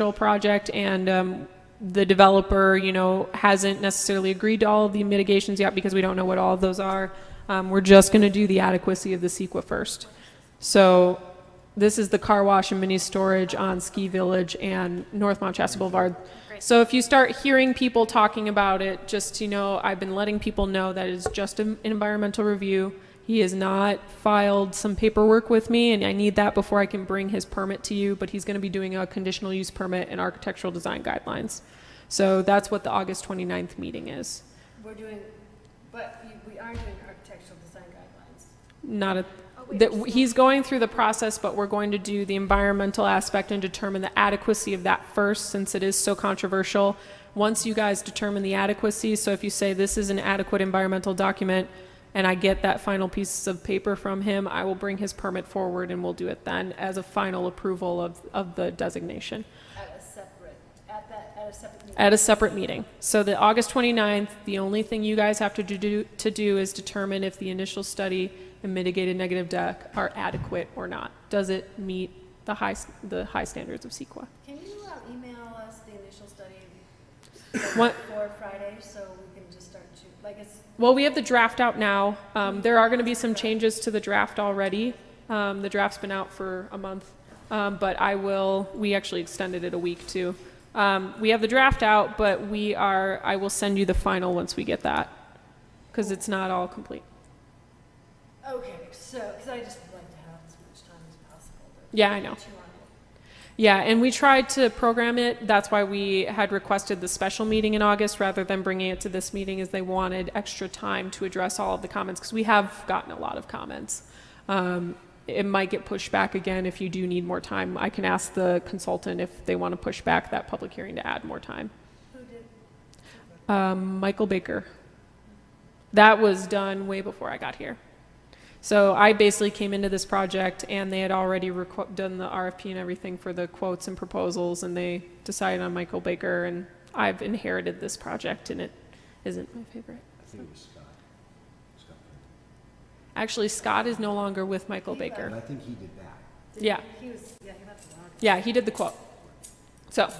Control project and um, the developer, you know, hasn't necessarily agreed to all of the mitigations yet because we don't know what all of those are. Um, We're just going to do the adequacy of the CEQA first. So this is the car wash and mini storage on Ski Village and North Mount Shasta Boulevard. So if you start hearing people talking about it, just to know, I've been letting people know that it's just an environmental review. He has not filed some paperwork with me, and I need that before I can bring his permit to you, but he's gonna be doing a conditional use permit and architectural design guidelines. So that's what the August 29th meeting is. We're doing, but you- we are doing architectural design guidelines. Not a, that, he's going through the process, but we're going to do the environmental aspect and determine the adequacy of that first, since it is so controversial. Once you guys determine the adequacy, so if you say this is an adequate environmental document, and I get that final piece of paper from him, I will bring his permit forward and we'll do it then as a final approval of, of the designation At a separate, at that, at a separate meeting. at a separate meeting. So the August 29th, the only thing you guys have to do, to do is determine if the initial study and mitigated negative deck are adequate or not. Does it meet the high, s- the high standards of CEQA? Can you um, email us the initial study What, for Friday, so we can just start to, like, it's, well, we have the draft out now. Um, there are gonna be some changes to the draft already. Um, the draft's been out for a month. Um, but I will, we actually extended it a week too. Um, we have the draft out, but we are, I will send you the final once we get that. Cause it's not all complete. okay, so, because I just would like to have as much time as possible. to Yeah, I know. chew on it. Yeah, and we tried to program it. That's why we had requested the special meeting in August rather than bringing it to this meeting, as they wanted extra time to address all of the comments, because we have gotten a lot of comments. Um, It might get pushed back again if you do need more time. I can ask the consultant if they want to push back that public hearing to add more time. Who did, Um, Michael Baker. That was done way before I got here. So I basically came into this project and they had already requ- done the RFP and everything for the quotes and proposals and they decided on Michael Baker and I've inherited this project and it isn't my favorite. I think it was Scott. Scott. Franklin. Actually, Scott is no longer with Michael And Baker. I think he did that. Yeah. he was, yeah, he left a lot. Yeah, he did the quote. So,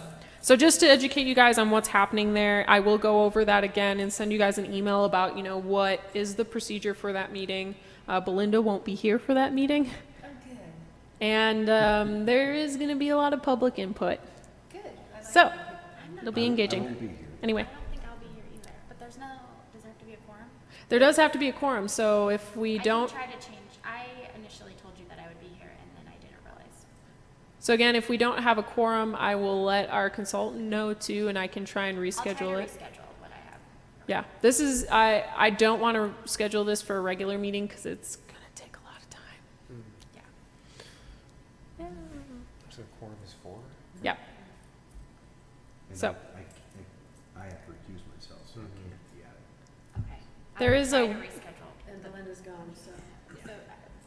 so just to educate you guys on what's happening there, I will go over that again and send you guys an email about, you know, what is the procedure for that meeting. Uh, Belinda won't be here for that meeting. Oh, good, And um, there is going to be a lot of public input. good. I like So, that. it'll be I won't engaging. be here. Anyway, I don't think I'll be here either, but there's no, does there have to be a quorum? there does have to be a quorum, so if we don't, I can try to change, I initially told you that I would be here and then I didn't realize. so again, if we don't have a quorum, I will let our consultant know too, and I can try and I'll try to reschedule it. reschedule what I have. Yeah, this is, I, I don't want to schedule this for a regular meeting because it's going to take a lot of time. Yeah. So quorum is four? Yeah, And So- Mm-hmm. I- I can't- I have to recuse myself, so I Mhm. can't be at it. Okay. I There will is try a- to reschedule. And Belinda's gone, so. So, uh,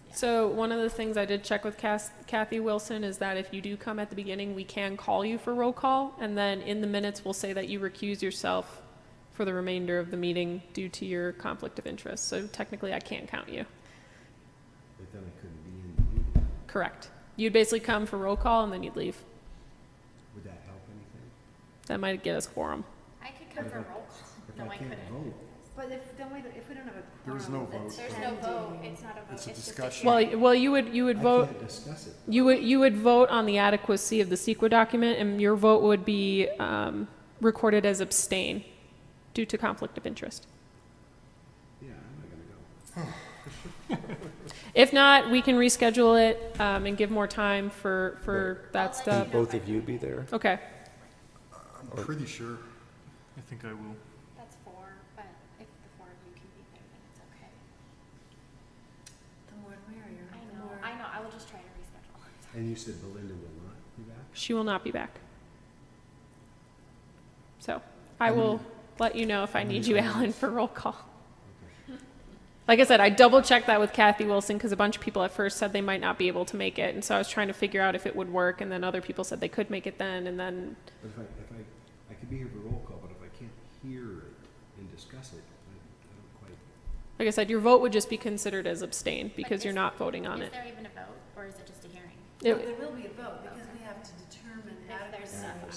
yeah. so one of the things I did check with Cas- Kathy Wilson is that if you do come at the beginning, we can call you for roll call, and then in the minutes, we'll say that you recuse yourself for the remainder of the meeting due to your conflict of interest, so technically I can't count you. But then I couldn't be in the meeting. Correct. You'd basically come for roll call and then you'd leave. Would that help anything? That might get us quorum. I could come for roll call. If No, I I can't couldn't. vote, But if, then we, don't- if we don't have a There was quorum, no that's vote. There's no pending. vote, it's not a vote, it's It's a just a discussion. hearing. Well, well, you would, you I would vote. can't discuss it. You would, you would vote on the adequacy of the CEQA document, and your vote would be um, recorded as abstain due to conflict of interest. Yeah, I'm not gonna go. If not, we can reschedule it um, and give more time for, for that I'll let stuff. you know Both if I of you can. be there? Okay, I'm pretty sure. I think I will. That's four, but if the four of you can be there, then it's okay. The more the merrier. I the know, more- I know, I will just try to reschedule. And you said Belinda will not be back? she will not be back. So I will let you know if I need you, Alan, for roll call. Like I said, I double checked that with Kathy Wilson because a bunch of people at first said they might not be able to make it. And so I was trying to figure out if it would work. And then other people said they could make it then. And then, But if I, if I, I could be here for roll call, but if I can't hear it and discuss it, I I don't quite. like I said, your vote would just be considered as abstain because is- you're not voting on Is it. there even a vote, or is it just a hearing? Well, It- There will be a vote, because we have to determine if there's, Yeah. some-